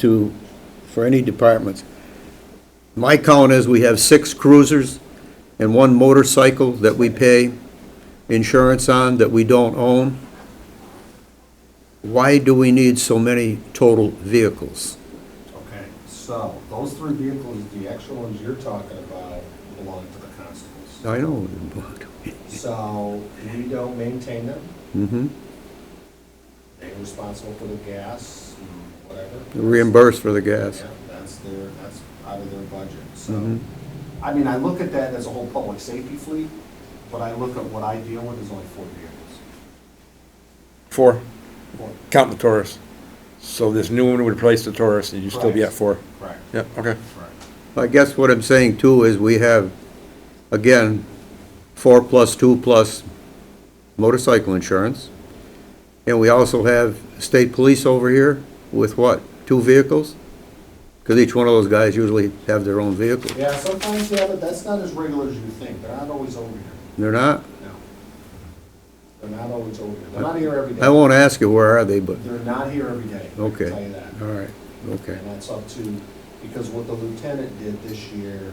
to, for any departments. My count is we have six cruisers and one motorcycle that we pay insurance on that we don't own. Why do we need so many total vehicles? Okay, so those three vehicles, the actual ones you're talking about belong to the constables. I know. So we don't maintain them, Mm-hmm. they're responsible for the gas and whatever. Reimbursed for the gas. Yeah, that's their, that's out of their budget, so. Mhm. I mean, I look at that as a whole public safety fleet, but I look at what I deal with is only four vehicles. Four, Four. counting the Taurus. So this new one would replace the Taurus, and you'd still be at four. Correct, Yeah, okay. correct. I guess what I'm saying too is we have, again, four plus two plus motorcycle insurance. And we also have state police over here with what, two vehicles? Because each one of those guys usually have their own vehicle. Yeah, sometimes, yeah, but that's not as regular as you think, they're not always over here, They're not? no. They're not always over here, they're not here every day. I won't ask you where are they, but, They're not here every day, I Okay. can tell you that. all right, okay. And that's up to, because what the lieutenant did this year,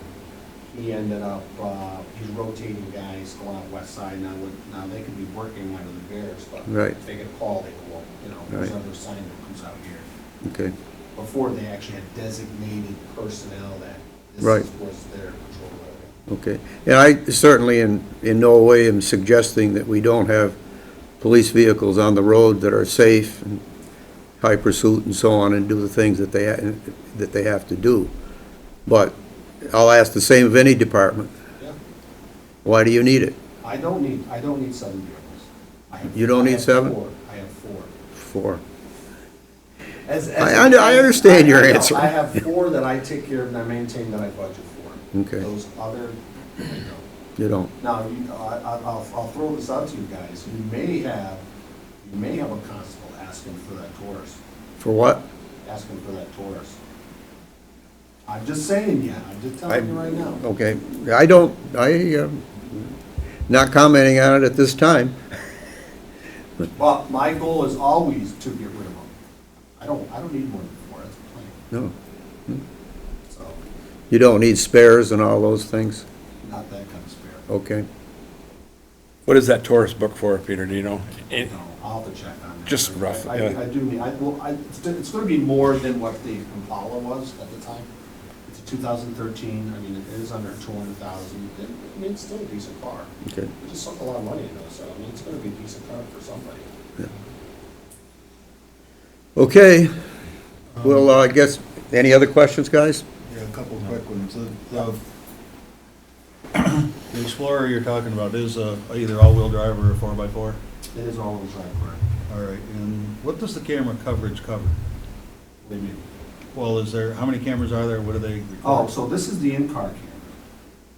he ended up, uh, he's rotating guys going out west side, now, with- now they could be working under the bears, but Right. if they get a call, they go, you know, Right. there's another assignment comes out here. Okay, Before, they actually had designated personnel that this Right. is- was their control area. okay. And I certainly in, in no way am suggesting that we don't have police vehicles on the road that are safe and high pursuit and so on and do the things that they, ha- that they have to do. But I'll ask the same of any department. Yeah. Why do you need it? I don't need, I don't need seven vehicles. I have- You don't I need have seven? four. I have four. For, As, I under- I understand your I- I know. answer. I have four that I take care of and I maintain that I budget for. Okay. Those other, I don't. you don't. now, you, I, I- I'll, I'll throw this out to you guys, you may have, you may have a constable asking for that Taurus, For what? asking for that Taurus. I'm just saying, yeah, I'm just telling you right now. Okay, I don't, I, um, not commenting on it at this time. But my goal is always to get rid of them. I don't, I don't need more than four, that's plenty, No. so, You don't need spares and all those things? not that kind of spare. Okay. What is that Taurus book for, Peter, do you know? No, I'll have to check on that. Just rough, I- yeah. I I do, need- I, well, I, it's go- it's gonna be more than what the Impala was at the time. It's a two thousand thirteen, I mean, it is under two hundred thousand, I mean, it's still a decent car. Okay. It just sunk a lot of money into it, so, I mean, it's gonna be a decent car for somebody. Okay, well, uh, I guess, any other questions, guys? Yeah, a couple of quick ones. The- The the Explorer you're talking about is a either all-wheel drive or a four-by-four? It is all-wheel drive, correct? All right, and what does the camera coverage cover? What do you mean? Well, is there, how many cameras are there? What do they record? Oh, so this is the in-car camera.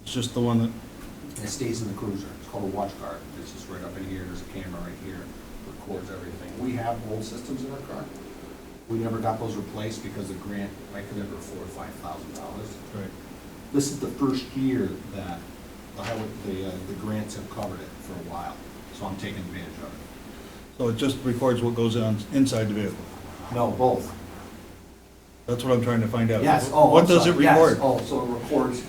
It's just the one that, It stays in the cruiser. It's called a watch guard. It's just right up in here. There's a camera right here, records everything. We have old systems in our car. We never got those replaced because the grant, I could never afford five thousand dollars. right, This is the first year that the highway, the, uh, the grants have covered it for a while, so I'm taking advantage of it. so it just records what goes on inside the vehicle? No, both. That's what I'm trying to find out. Yes, oh, What I'm does it sorry. Yes, record? Oh, so it records,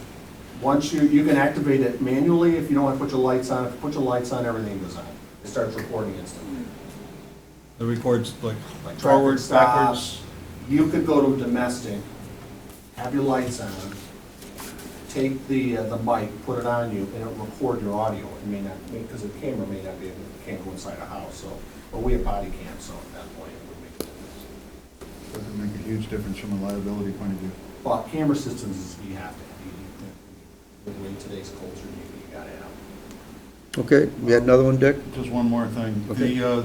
once you, you can activate it manually if you don't want to put your lights on. If you put your lights on, everything goes on. It starts recording instantly. It records like Like traffic forwards, stops. backwards? You could go to domestic, have your lights on, take the, uh, the mic, put it on you, and it'll record your audio. It may not, because the camera may not be able, can't go inside a house, so, but we have body cams, so at that point, it would make a difference. Doesn't make a huge difference from a liability point of view. But camera systems is, you have to, you, the way today's culture, you, you gotta have. Okay, you had another one, Dick? Just one more thing. Okay. The, uh,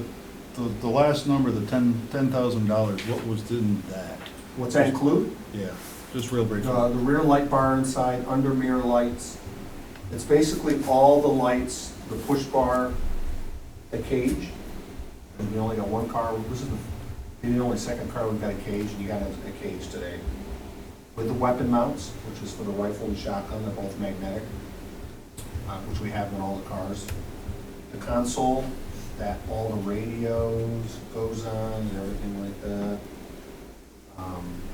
the, the last number, the ten, ten thousand dollars, what was in that? What's that include? Yeah, just real brief. Uh, the rear light bar inside, under mirror lights. It's basically all the lights, the push bar, the cage. And we only got one car, this is the, the only second car we've got a cage, and you got a a cage today. With the weapon mounts, which is for the rifle and shotgun, they're both magnetic, uh, which we have in all the cars. The console, that all the radios goes on and everything like that. Um,